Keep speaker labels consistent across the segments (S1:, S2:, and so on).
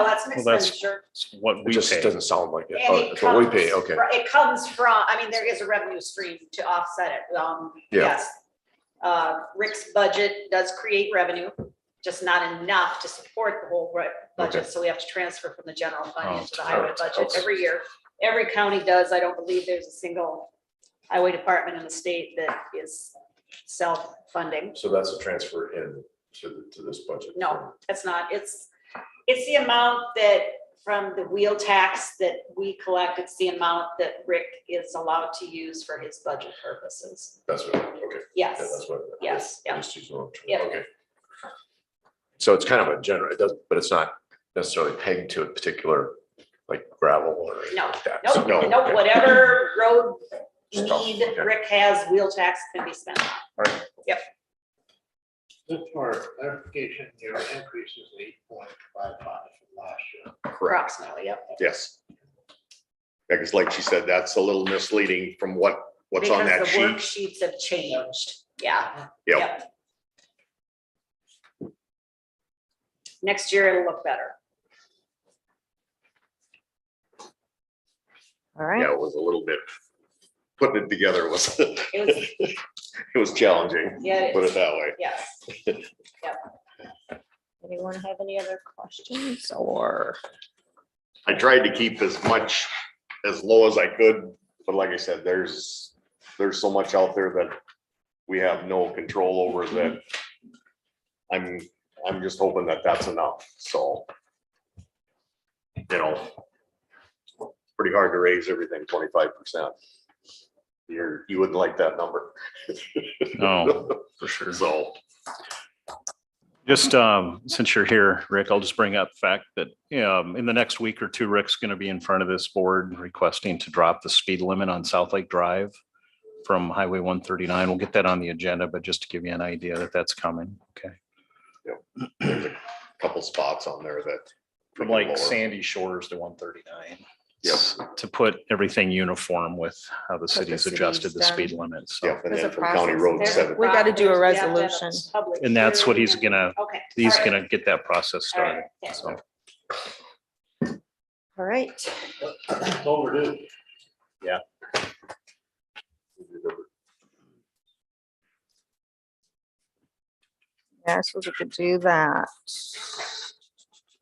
S1: Well, that's an
S2: Well, that's-
S1: expenditure.
S2: It's what
S3: It
S2: we
S3: just
S2: pay.
S3: doesn't sound like it.
S1: and
S3: Oh,
S1: it
S3: that's what we
S1: comes
S3: pay, okay.
S1: fro- It comes from, I mean, there is a revenue stream to offset it, um,
S3: Yeah.
S1: yes. Uh, Rick's budget does create revenue, just not enough to support the whole bu- budget, so we have to transfer from the general
S2: Oh,
S1: fund into the highway
S3: alright,
S1: budget
S3: okay.
S1: every year. Every county does, I don't believe there's a single highway department in the state that is self-funding.
S3: So that's a transfer in to, the- to this budget?
S1: No, that's not, it's, it's the amount that, from the wheel tax that we collect, it's the amount that Rick is allowed to use for his budget purposes.
S3: That's what, okay. yeah,
S1: Yes,
S3: That's what.
S1: yes, yeah.
S3: Just use one term,
S1: Yeah.
S3: Okay. So it's kind of a general, it does, but it's not necessarily pegged to a particular, like gravel or anything
S1: No,
S3: like that.
S1: nope,
S3: No,
S1: nope,
S3: okay.
S1: whatever road
S3: Stuff,
S1: need
S3: okay.
S1: Rick has, wheel tax can be spent.
S4: Just for clarification, your increase is eight point five five from last year.
S1: Approximately, yep.
S5: Yes. Because like she said, that's a little misleading from what, what's on that
S1: Because the
S5: sheet.
S1: worksheets have changed, yeah.
S5: Yep.
S1: Next year it'll look better.
S6: All
S5: Yeah,
S6: right,
S5: it was a little bit, putting it together was, it
S1: It was,
S5: was challenging,
S1: yeah,
S5: put it
S1: it's-
S5: that way.
S1: yes.
S6: anyone have any other questions or?
S5: I tried to keep as much, as low as I could, but like I said, there's, there's so much out there that we have no control over
S2: Mhm.
S5: that. I'm, I'm just hoping that that's enough, so. You know. Pretty hard to raise everything twenty-five percent. You're, you wouldn't like that number,
S2: No, Oh, for sure.
S5: so.
S2: Just, um, since you're here, Rick, I'll just bring up the fact that, um, in the next week or two, Rick's gonna be in front of this board requesting to drop the speed limit on South Lake Drive from Highway one thirty-nine. We'll get that on the agenda, but just to give you an idea that that's coming, okay?
S5: there's a Couple spots on there that.
S2: From like
S5: sand.
S2: Sandy Shores to one thirty-nine.
S5: Yep.
S2: To put everything uniform with how the city's
S6: city's
S2: adjusted the
S6: done.
S2: speed limit, so.
S5: Yep, and
S6: There's a
S5: then from County
S6: process
S5: Road
S6: there.
S5: seven,
S6: We gotta do a
S1: There's- we have to have
S6: resolution.
S1: public
S2: And that's what he's
S1: hearing.
S2: gonna,
S1: Okay.
S2: he's
S1: all right,
S2: gonna get that process
S1: all right,
S2: started,
S1: okay.
S2: so.
S6: All right,
S4: It's overdue.
S6: yeah, I suppose we could do that.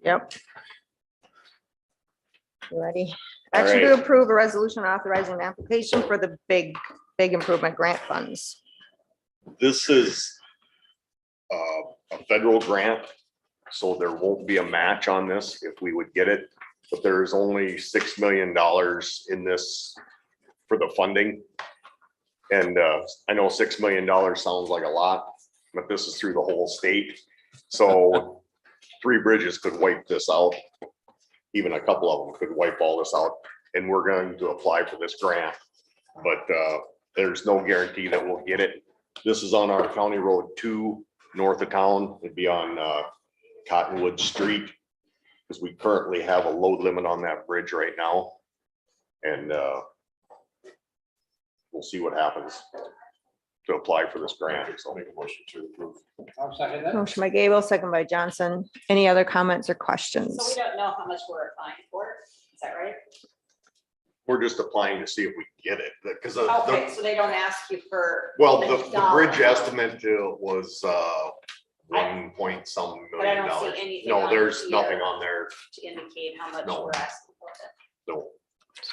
S6: Yep. You Ready?
S5: All
S6: Action to
S5: right.
S6: approve a resolution authorizing an application for the big, big improvement grant funds.
S5: this is uh, a federal grant, so there won't be a match on this if we would get it. But there is only six million dollars in this for the funding. And uh, I know six million dollars sounds like a lot, but this is through the whole state. So three bridges could wipe this out. Even a couple of them could wipe all this out, and we're going to apply for this grant. But uh, there's no guarantee that we'll get it. This is on our county road two, north of town, it'd be on uh, Cottonwood Street. Because we currently have a load limit on that bridge right now. And uh, we'll see what happens to apply for this grant, so. Make a motion to approve.
S4: I'll second that.
S6: Motion by Gable, second by Johnson. Any other comments or
S1: So we
S6: questions?
S1: don't know how much we're applying for, is that right?
S5: We're just applying to see if we get it, because the,
S1: Okay,
S5: the-
S1: so they don't ask you for.
S5: well, the, the
S1: dollar
S5: bridge estimate uh, was uh, one point some
S1: But I
S5: million
S1: don't see
S5: dollars.
S1: anything on
S5: No,
S1: it
S5: there's nothing
S1: either.
S5: on there,
S1: To indicate how much
S5: No.
S1: we're asking for it.
S5: no.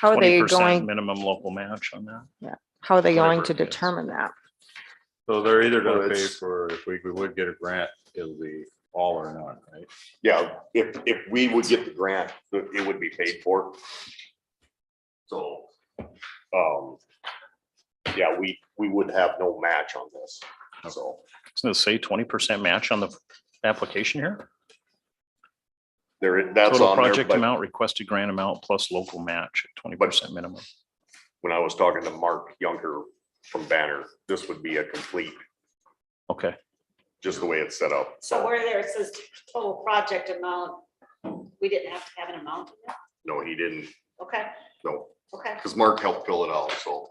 S6: How are they
S2: 20%
S6: going,
S2: Minimum local match on that.
S6: how are they going to
S5: Whatever it is.
S6: determine that?
S7: So they're either
S5: Well,
S7: gonna pay
S5: it's-
S7: for, if we we would get a grant, it'll be all or none, right?
S5: Yeah, if, if we would get the grant, it would be paid for. So, um, yeah, we, we would have no match on this, so
S2: Doesn't it say twenty percent match on the application here?
S5: there, is- that's
S2: Total
S5: on there,
S2: project
S5: but
S2: amount, requested grant amount plus local match at twenty percent minimum.
S5: when I was talking to Mark Younger from Banner, this would be a complete,
S2: Okay,
S5: just the way it's set up.
S1: So where there it says total project amount, we didn't have to have an amount in it?
S5: No, he didn't,
S1: Okay,
S5: no,
S1: okay.
S5: because Mark helped fill it out, so,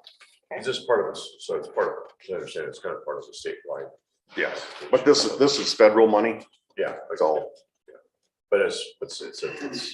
S3: Is this part of this? So it's part of, as I understand, it's kind of part of the statewide.
S5: yes. But this, is this is federal money,
S3: Yeah.
S5: so but it's, it's, it's, it's